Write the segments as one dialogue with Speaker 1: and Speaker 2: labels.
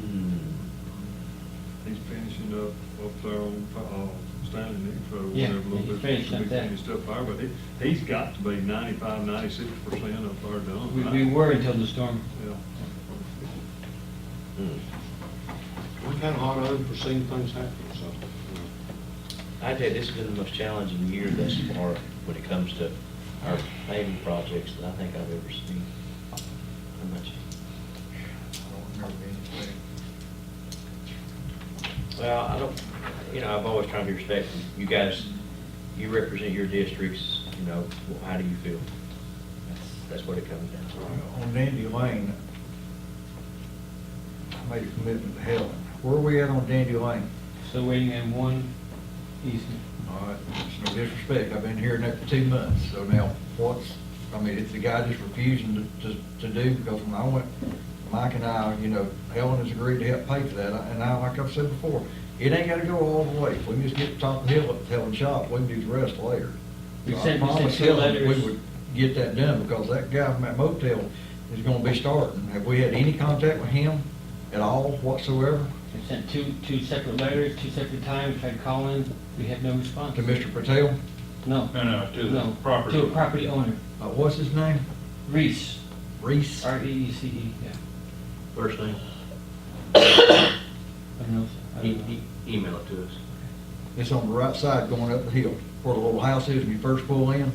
Speaker 1: Hmm.
Speaker 2: finishing up, up there on, uh, Stanley Nick Road,
Speaker 3: Yeah,
Speaker 2: whatever little
Speaker 3: he's
Speaker 2: bit,
Speaker 3: finished
Speaker 2: some
Speaker 3: up
Speaker 2: big
Speaker 3: there.
Speaker 2: finished up there, but he, he's got to be ninety-five, ninety-six percent up there done.
Speaker 3: We,
Speaker 2: I-
Speaker 3: we were until the storm.
Speaker 2: Yeah.
Speaker 4: We've had a lot of unforeseen things happen, so. uh,
Speaker 1: I tell you, this has been the most challenging year thus far when it comes to our paving projects that I think I've ever seen. How much? Well, I don't, you know, I've always tried to be respectful. You guys, you represent your districts, you know, well, how do you feel? That's- That's what it comes down to.
Speaker 5: On Dandy Lane, I made a commitment to Helen. Where are we at on Dandy Lane?
Speaker 3: Still waiting on one easement.
Speaker 5: All right, it's no disrespect, I've been hearing that for two months, so now what's, I mean, if the guy just refusing to, to, to do, because when I went, Mike and I, you know, Helen has agreed to help pay for that, and I, like I've said before, it ain't gotta go all the way, if we can just get to the top of the hill at Helen's shop, we can do the rest later.
Speaker 3: We've
Speaker 5: So I
Speaker 3: sent- we sent
Speaker 5: promised
Speaker 3: two
Speaker 5: Helen we
Speaker 3: letters.
Speaker 5: would Get that done, because that guy from that motel is gonna be starting, have we had any contact with him at all whatsoever,
Speaker 3: I sent two, two separate letters, two separate times, tried calling, we had no response.
Speaker 5: to Mr. Patel?
Speaker 3: No.
Speaker 6: No, no, to the
Speaker 3: No,
Speaker 6: property
Speaker 3: To a
Speaker 6: owner.
Speaker 3: property owner,
Speaker 5: Uh, what's his name?
Speaker 3: Reese,
Speaker 5: Reese?
Speaker 3: R E E C E, yeah.
Speaker 1: First thing,
Speaker 3: I don't know, I
Speaker 1: e-
Speaker 3: don't know.
Speaker 1: e- email it to us.
Speaker 5: It's on the right side going up the hill, where the little house is when you first pull in,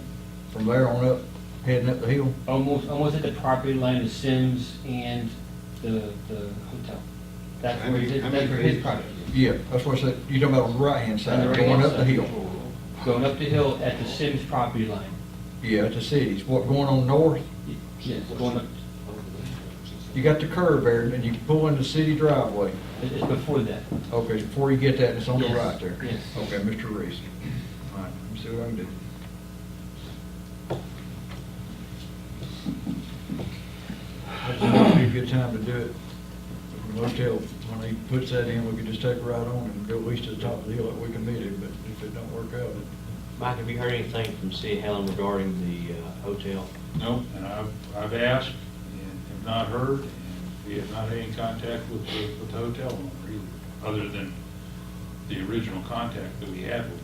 Speaker 5: from there on up, heading up the hill.
Speaker 3: Almost, almost at the property line of Sims and the, the hotel. That's
Speaker 4: how
Speaker 3: where,
Speaker 4: many-
Speaker 3: his-
Speaker 4: how
Speaker 3: that's
Speaker 4: many
Speaker 3: where his
Speaker 4: pages?
Speaker 3: property,
Speaker 5: Yeah, that's what I said, you're talking about on the right-hand
Speaker 3: On the
Speaker 5: side, going
Speaker 3: right-hand
Speaker 5: up the
Speaker 3: side.
Speaker 5: hill.
Speaker 3: going up the hill at the Sims property line.
Speaker 5: Yeah, it's the cities, what, going on north,
Speaker 3: Y- Yes, going up,
Speaker 5: you got the curve there, and you pull in the city driveway.
Speaker 3: it- it's before that.
Speaker 5: Okay, before you get that, it's on the
Speaker 3: Yes,
Speaker 5: right there.
Speaker 3: yes.
Speaker 5: Okay, Mr. Reese. All right, let me see what I can do. That's gonna be a good time to do it. The Motel, when he puts that in, we could just take a ride on and go at least to the top of the hill, like we committed, but if it don't work out,
Speaker 1: Mike, have you heard anything from City of Helen regarding the uh, hotel?
Speaker 6: No, and I've, I've asked and have not heard, and we have not had any contact with, the- with the hotel owner either, other than the original contact that we had with them.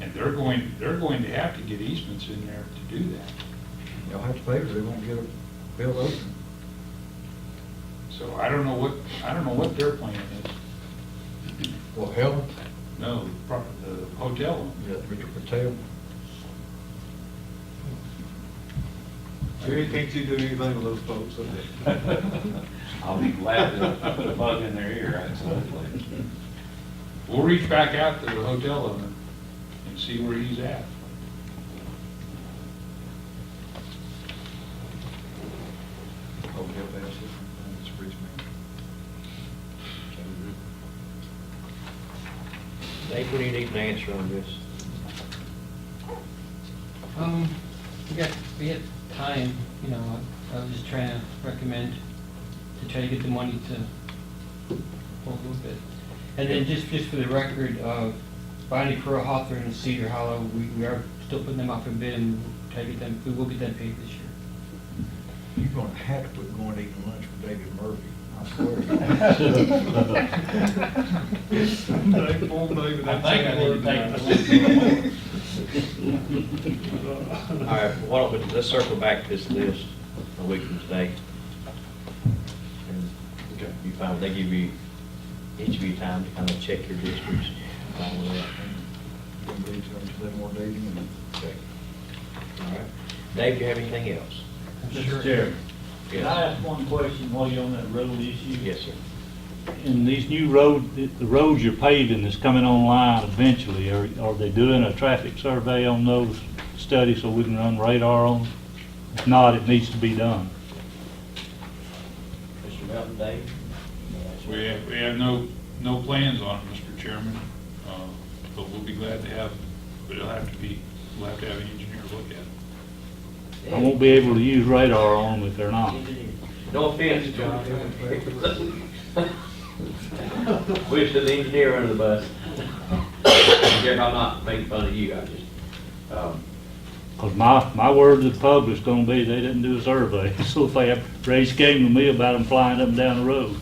Speaker 6: And they're going, they're going to have to get easements in there to do that.
Speaker 5: y'all have to pay, or they won't get a bill open.
Speaker 6: So I don't know what, I don't know what their plan is.
Speaker 5: Well, hell,
Speaker 6: No, the pro- the hotel owner.
Speaker 5: yeah, Mr. Patel.
Speaker 4: Jerry, can't you do anything with those folks? up there?
Speaker 7: I'll be glad to put a bug in their ear, absolutely.
Speaker 6: We'll reach back out to the hotel owner and see where he's at.
Speaker 5: Oh, yeah, that's it. That's Reese, man.
Speaker 1: Dave, what do you need an answer on this?
Speaker 3: Um, we got, we had time, you know, I- I was just trying to recommend to try to get the money to hold a little bit. And then just, just for the record, uh, Bonnie Pearl Hawthorne and Cedar Hollow, we, we are still putting them out for bid and try to get them, we will get them paid this year.
Speaker 5: You're gonna have to quit going to eat lunch with David Murphy, I swear.
Speaker 2: Dave, poor David, that's.
Speaker 7: I think I need to
Speaker 1: All right, why don't we, let's circle back to this list a week from today. And You find, they give you, each of you time to kind of check your districts. follow that.
Speaker 5: Gonna be to them more dating
Speaker 1: Okay. All right. Dave, do you have anything else?
Speaker 7: Mr. Chairman, can I
Speaker 1: Yes.
Speaker 7: ask one question while you're on that road issue?
Speaker 1: Yes, sir.
Speaker 7: In these new road, the the roads you're paving that's coming online eventually, are, are they doing a traffic survey on those studies so we can run radar on? them? If not, it needs to be done.
Speaker 1: Mr. Melton, Dave?
Speaker 6: We have, we have no, no plans on it, Mr. Chairman, uh, but we'll be glad to have, but it'll have to be, we'll have to have an engineer look at it.
Speaker 7: I won't be able to use radar on them if they're not.
Speaker 1: No offense, John. Wish the engineer under the bus. Jeff, I'm not making fun of you, I just, um,
Speaker 7: Because my, my word to the public's gonna be, they didn't do a survey. So if they have raised game to me about them flying up and down the road.